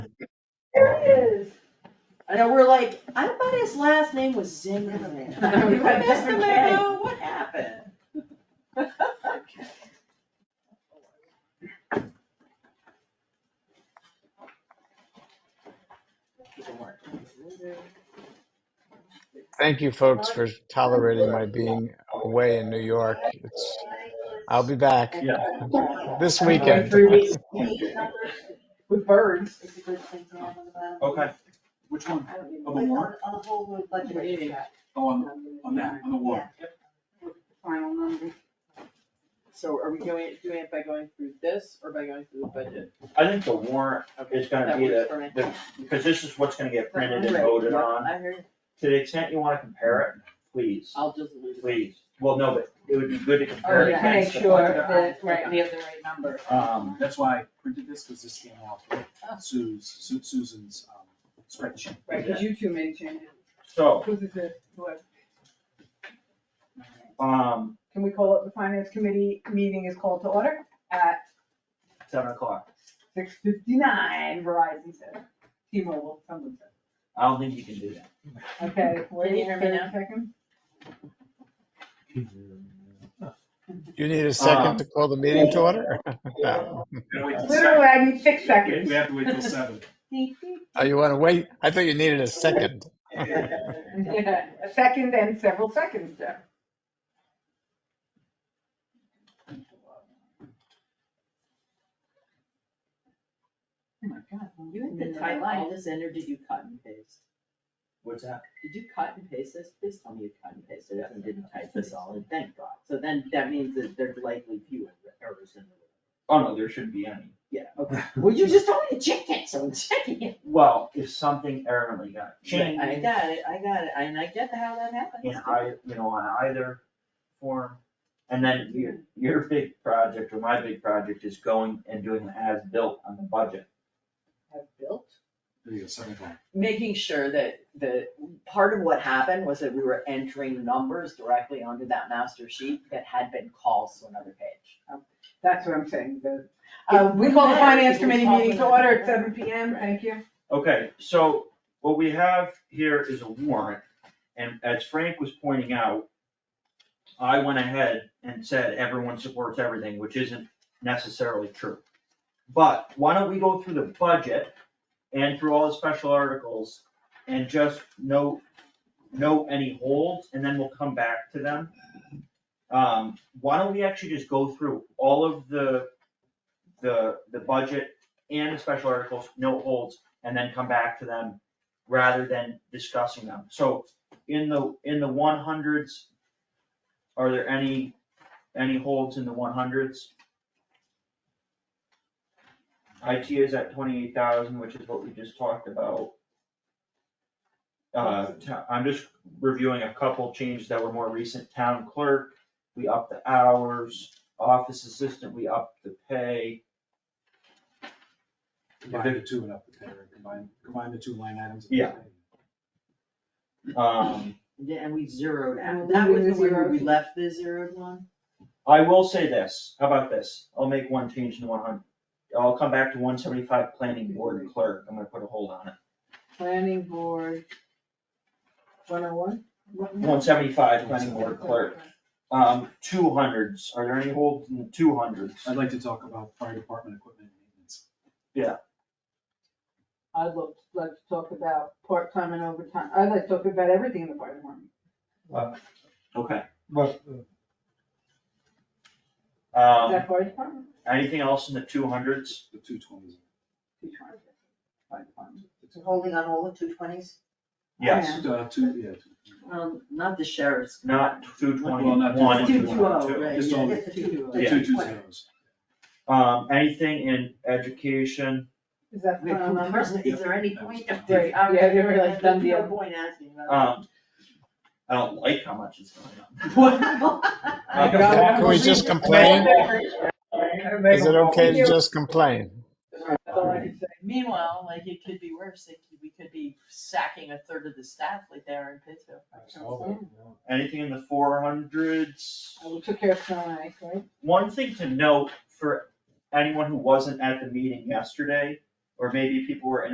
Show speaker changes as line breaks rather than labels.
is.
I know, we're like, I thought his last name was Zimmerman.
We had different K.
Mr. What happened?
Thank you, folks, for tolerating my being away in New York. It's, I'll be back
Yeah.
this
Every
weekend.
Three weeks. With birds.
Okay, which one? Of the warrant?
On the whole new budget.
Yeah. Oh, on, on that, on the warrant.
Final number.
So are we going, doing it by going through this or by going through the budget?
I think the warrant is gonna
That
be
works
the,
for me.
the, because this is what's gonna get printed and
Right,
voted
yep,
on.
I hear you.
To the extent you wanna compare it, please,
I'll just leave it.
please. Well, no, but it would be good to compare it
yeah.
Make
against the
sure
budget.
that, right, we have the right number.
Um, that's why I printed this, because this came out of Sue's, Su- Susan's um, spreadsheet.
Right, because you two made changes.
So,
Who's is it, what?
um,
Can we call it the finance committee meeting is called to order at
seven o'clock,
six fifty-nine, Verizon said. T-Mobile, someone said.
I don't think you can do that.
Okay,
Can
wait
you hear me
thirty
now?
seconds.
You need a second to call the meeting to order? No.
Gotta wait till
Literally, I need six
seven.
seconds.
We have to wait till seven.
Oh, you want to wait? I thought you needed a second.
Yeah, A second and several seconds there. Oh my God.
You had the title, all this in, or did you cut and paste?
What's that?
Did you cut and paste this? Please tell me you cut and pasted it and didn't type this all in, thank God. So then that means that there's likely fewer errors in the,
Oh, no, there shouldn't be any.
yeah, okay. Well, you just told me to check it, so I'm checking it.
Well, if something errantly got changed,
I got it, I got it, and I get how that happens.
in I, you know, on either form. And then your, your big project or my big project is going and doing an as-built on the budget.
Have built.
There you go, seven o'clock.
making sure that the, part of what happened was that we were entering numbers directly onto that master sheet that had been calls to another page.
That's what I'm saying, the, uh, we call the finance committee meeting to order at seven P M, thank you.
Okay, so what we have here is a warrant, and as Frank was pointing out, I went ahead and said everyone supports everything, which isn't necessarily true. But why don't we go through the budget and through all the special articles and just note, note any holds, and then we'll come back to them. Um, why don't we actually just go through all of the, the, the budget and the special articles, no holds, and then come back to them rather than discussing them. So in the, in the one hundreds, are there any, any holds in the one hundreds? IT is at twenty-eight thousand, which is what we just talked about. Uh, ta- I'm just reviewing a couple changes that were more recent. Town clerk, we upped the hours, office assistant, we upped the pay.
Combine the two and up the pair, combine, combine the two line items.
Yeah. Um,
Yeah, And we zeroed out,
And
that was the
leaving the
one where we
zeros.
left the zeroed one?
I will say this, how about this, I'll make one change in one hundred, I'll come back to one seventy-five planning board clerk, I'm gonna put a hold on it.
Planning board. One oh one?
Mm-hmm.
One seventy-five planning board clerk, um, two hundreds, are there any holds in the two hundreds?
I'd like to talk about fire department equipment and maintenance.
I'd love, like to talk about part-time and overtime, I'd like to talk about everything in the fire department.
Okay,
Well,
Is
um,
that fire department?
anything else in the two hundreds?
The two twenties.
Two twenty. Fire department.
Holding on all the two twenties?
Yes,
Uh, two, yeah. two.
Um, not the sheriff's.
not two
Well,
twenty-one
not
and
221.
Two two
222.
oh, right,
Just
yeah,
all
yeah,
the-
two two oh.
The two two zeros.
Um, anything in education,
Is that
Wait,
the final
who-
number?
first, Um, is there any point? of-
Right, yeah, they were like done deal.
No point asking about that.
um, I don't like how much is going up.
Um,
I
Um,
got it.
Uh, Can we just complain? Is it okay to just complain?
That's all I can say.
Meanwhile, like, it could be worse, like, we could be sacking a third of the staff like they are in Pittsfield.
Anything in the four hundreds?
Uh, We took care of snow and ice, right?
One thing to note for anyone who wasn't at the meeting yesterday, or maybe people were in